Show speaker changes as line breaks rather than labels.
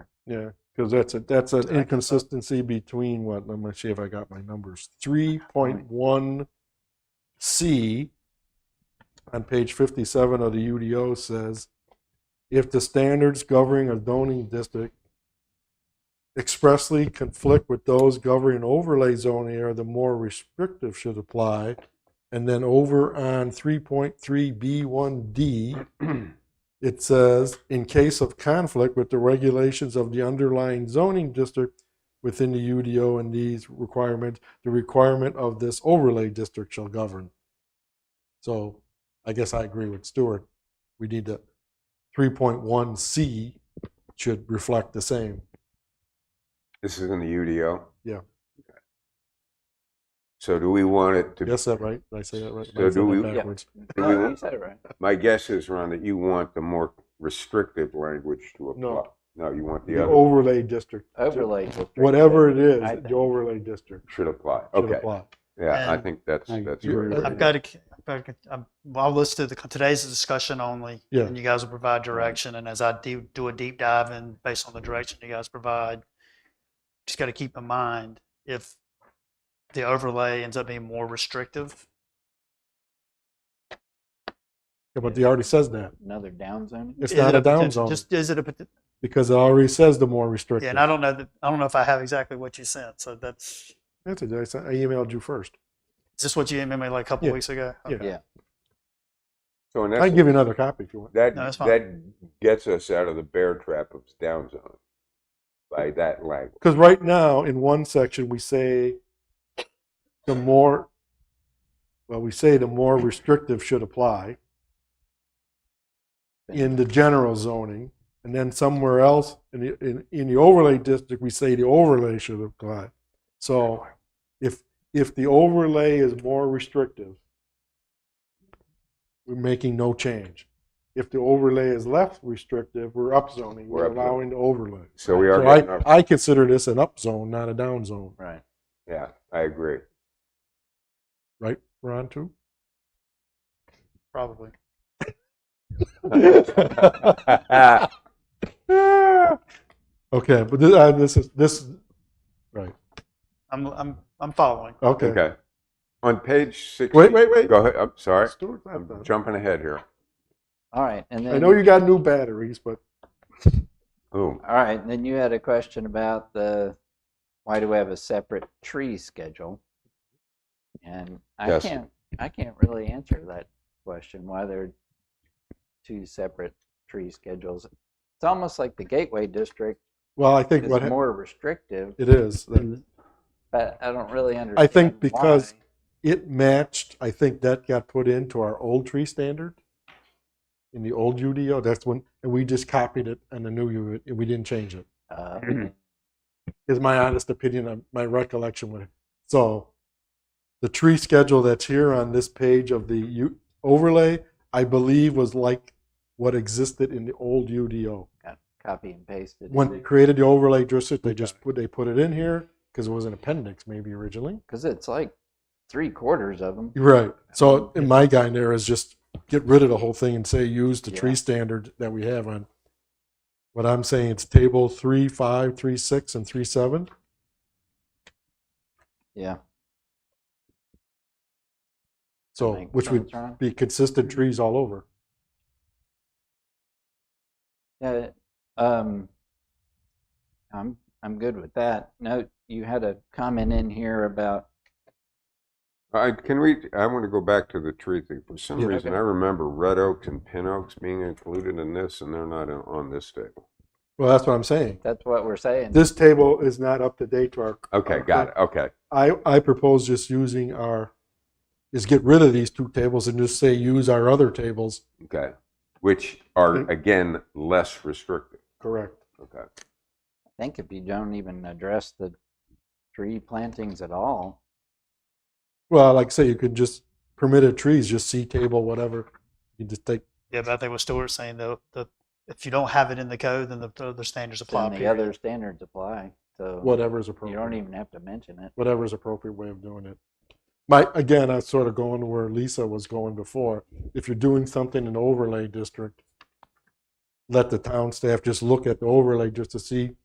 Yeah, because that's a, that's an
Did I get that?
inconsistency between what, let me see if I got my numbers. Three point one C on page fifty-seven of the UDO says, if the standards governing a zoning district expressly conflict with those governing overlay zoning area, the more restrictive should apply. And then over on three point three B one D, it says, in case of conflict with the regulations of the underlying zoning district within the UDO and these requirements, the requirement of this overlay district shall govern. So I guess I agree with Stuart. We need to, 3.1C should reflect the same.
This is in the UDO?
Yeah.
Okay. So do we want it to,
Yes, that right? Did I say that right?
So
I said
do
that
we-
Yeah.
backwards.
Do we-
No, you said it right.
my guess is, Ron, that you want the more restrictive language to
No.
apply. No, you want the
The
other
overlay district,
Overlay district.
whatever it is,
I
the overlay district
should apply.
should
Okay,
apply.
yeah, I
And-
think that's,
I
that's.
agree.
good.
I've got to, I've got to, I'm, well, I'll list to the, today's discussion only.
Yeah.
And you guys will provide direction, and as I do, do a deep dive in, based on the direction you guys provide, just got to keep in mind, if the overlay ends up being more restrictive,
Yeah, But he already says that.
Another down zone.
It's
is it
not a down
potent-
zone
Just, is it a, potent-
because it already says the more restrictive.
yeah, and I don't know, that I don't know if I have exactly what you sent, so that's,
That's it. I sent- I emailed you first.
is this what you emailed me like a couple
Yeah.
weeks ago?
Yeah.
Okay.
So in
I can give
essence,
you another copy if you want.
that,
No, that's fine.
that gets us out of the bear trap of down zone by that language.
Because right now, in one section, we say the more, well, we say the more restrictive should apply in the general zoning. And then somewhere else, in the, in, in the overlay district, we say the overlay should apply. So if, if the overlay is more restrictive, we're making no change. If the overlay is less restrictive, we're upzoning, we're
We're upzoning.
allowing the overlay.
So we are
So
getting,
I,
our-
I consider this an up zone, not a down zone,
Right.
yeah, I agree.
right, Ron, too?
Probably.
Okay, but this, uh, this is, this, right,
I'm, I'm, I'm following.
okay.
Okay. On page six.
Wait, wait, wait.
Go ahead, I'm sorry,
Stuart's not
I'm
done.
jumping ahead here.
All right, and then.
I know you got new batteries, but
Ooh,
All right, and then you had a question about the, why do we have a separate tree schedule? And I
Yes.
can't, I can't really answer that question, why there are two separate tree schedules. It's almost like the Gateway District
well, I think
is
what, hap-
more restrictive,
it is, that
but I don't really understand
because-
why.
it matched, I think that got put into our old tree standard in the old UDO, that's when, and we just copied it on the new UDO, and we didn't change it,
Uh,
is my honest opinion, of my recollection with it. So the tree schedule that's here on this page of the U- overlay, I believe was like what existed in the old UDO.
Copy and pasted.
when they created the overlay district, they just put they put it in here because it was an appendix maybe originally.
Because it's like three quarters of them.
Right. So in my guy there is just get rid of the whole thing and say use the tree
Yeah.
standard that we have on. What I'm saying it's table three, five, three, six, and three seven.
Yeah.
So
Like,
which would
Tron.
be consistent trees all over.
Yeah, um, I'm, I'm good with that. Note, you had a comment in here about,
I, can we, I want to go back to the tree thing. For some
Yeah.
reason, I remember red oaks and pin oaks being included in this, and they're not in- on this table.
Well, that's what I'm saying.
that's what we're saying.
This table is not up to date to our.
Okay,
our
got it, okay.
I, I propose just using our, is get rid of these two tables and just say use our other tables.
Okay, which are again less restrictive.
Correct.
Okay,
I think if you don't even address the tree plantings at all,
Well, like I say, you could just permitted trees, just C table, whatever. You just take,
Yeah, but I think what Stuart's saying, though, the, if you don't have it in the code, then the, the other standards apply.
then the
period.
other standards apply. So
whatever is
you don't
appropriate,
even have to mention it.
whatever is appropriate way of doing it. My, again, I was sort of going to where Lisa was going before. If you're doing something in the overlay district, let the town staff just look at the overlay just to see